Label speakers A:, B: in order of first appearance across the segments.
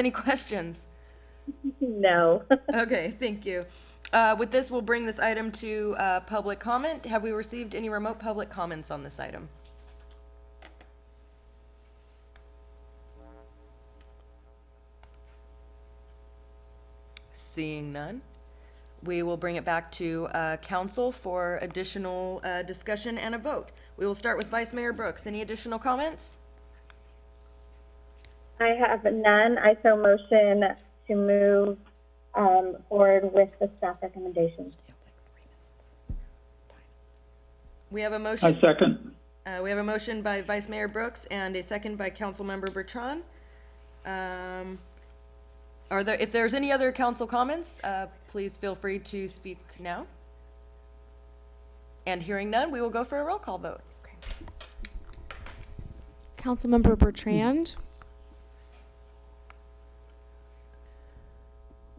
A: Any questions?
B: No.
A: Okay, thank you. Uh, With this, we'll bring this item to uh, public comment. Have we received any remote public comments on this item? Seeing none, we will bring it back to uh, council for additional uh, discussion and a vote. We will start with Vice Mayor Brooks. Any additional comments?
B: I have none. I so motion to move um, forward with the staff recommendations.
A: We have a
C: I
A: motion.
C: second.
A: Uh, we have a motion by Vice Mayor Brooks and a second by Councilmember Bertrand. Um, are there, if there's any other council comments, uh, please feel free to speak now. And hearing none, we will go for a roll call vote.
D: Councilmember Bertrand,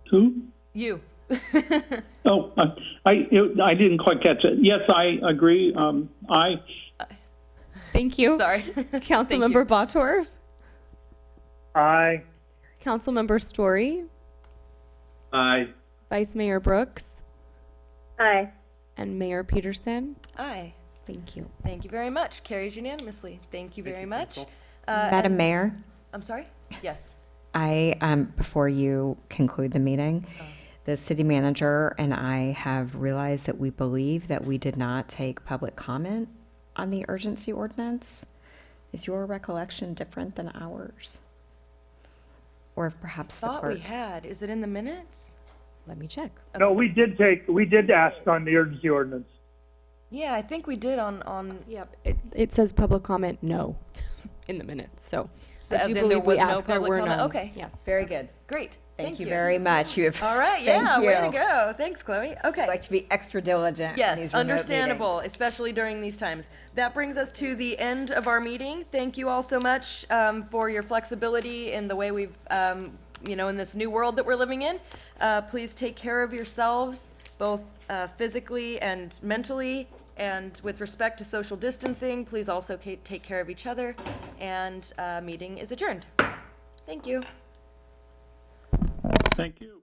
C: Who?
A: You.
C: Oh, I, I, it- I didn't quite catch it. Yes, I agree. Um, I,
D: thank you.
A: Sorry.
D: Councilmember Botorff,
E: Aye.
D: Councilmember Story,
E: Aye.
D: Vice Mayor Brooks,
B: Aye.
D: and Mayor Peterson.
A: Aye.
D: Thank you.
A: Thank you very much. Carries unanimously. Thank you very much.
D: Um,
F: Madam Mayor,
A: I'm sorry? Yes.
F: I, um, before you conclude the meeting, the city manager and I have realized that we believe that we did not take public comment on the urgency ordinance. Is your recollection different than ours? Or if perhaps the
A: Thought we
F: clerk?
A: had. Is it in the minutes?
F: Let me check.
E: No, we did take, we did ask on the urgency ordinance.
A: Yeah, I think we did on, on,
D: Yep. It, it says public comment, no, in the minutes, so.
A: So
D: I
A: as
D: do
A: in there
D: believe we
A: was no
D: asked there
A: public
D: were
A: comment?
D: none.
A: Okay.
D: Yes.
F: Very good.
A: great.
F: Thank you very much. You have.
A: All right,
F: thank
A: yeah, way to
F: you.
A: go. Thanks, Chloe. Okay.
F: I Like to be extra diligent. in these
A: Yes,
F: remote
A: understandable,
F: meetings.
A: especially during these times. That brings us to the end of our meeting. Thank you all so much um, for your flexibility in the way we've, um, you know, in this new world that we're living in. Uh, Please take care of yourselves, both uh, physically and mentally, and with respect to social distancing, please also ca- take care of each other. And uh, meeting is adjourned. Thank you.
C: thank you.